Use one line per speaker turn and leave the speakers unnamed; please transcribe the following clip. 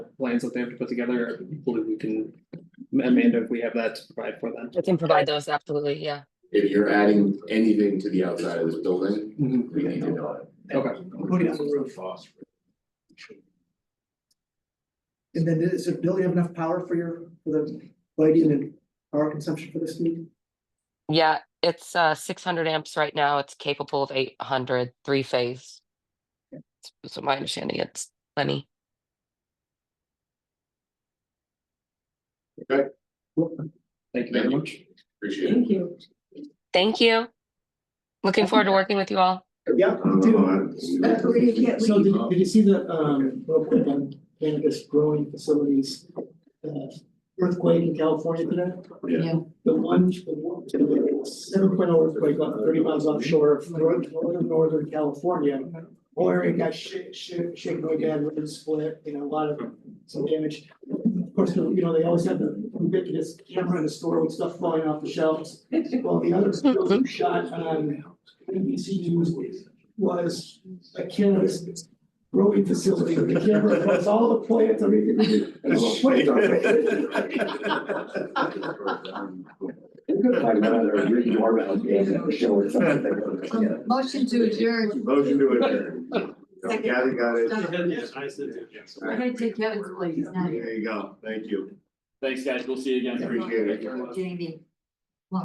plans that they have to put together, hopefully we can, Amanda, if we have that to provide for them.
I can provide those, absolutely, yeah.
If you're adding anything to the outside of this building,
Mm-hmm.
Mhm.
we need to know it.
Okay.
Put it on the roof. And then is it, Bill, you have enough power for your, for the lighting and power consumption for this meeting?
Yeah, it's uh six hundred amps right now. It's capable of 800 3 phase. So my understanding, it's plenty.
Thank you very much.
Appreciate it.
Thank you.
Thank you. Looking forward to working with you all.
Yeah.
I don't know, I-
Uh, we can't
So
leave.
did, did you see the, um, real quick on cannabis growing facilities, uh, earthquake in California today?
Yeah.
Yeah.
The one, the one, seven point oh earthquake about thirty miles offshore of north- northern, northern California. Where it got shit, shit, shaken again, river split, you know, a lot of, some damage. Of course, you know, they always have the ubiquitous camera in the store with stuff flying off the shelves. Well, the other building shot on NBC News was a cannabis growing facility. The camera was all the plants, everything. all the plants are-
Like another Ricky Marvell game or show or something.
Um, Motion to adjourn.
Motion to adjourn. Kathy got it.
Stop.
Yes, I said it, yes.
I'm gonna take Kevin's place, he's not here.
There you go, thank you,
Thanks, guys, we'll see you again.
appreciate it.
Jamie.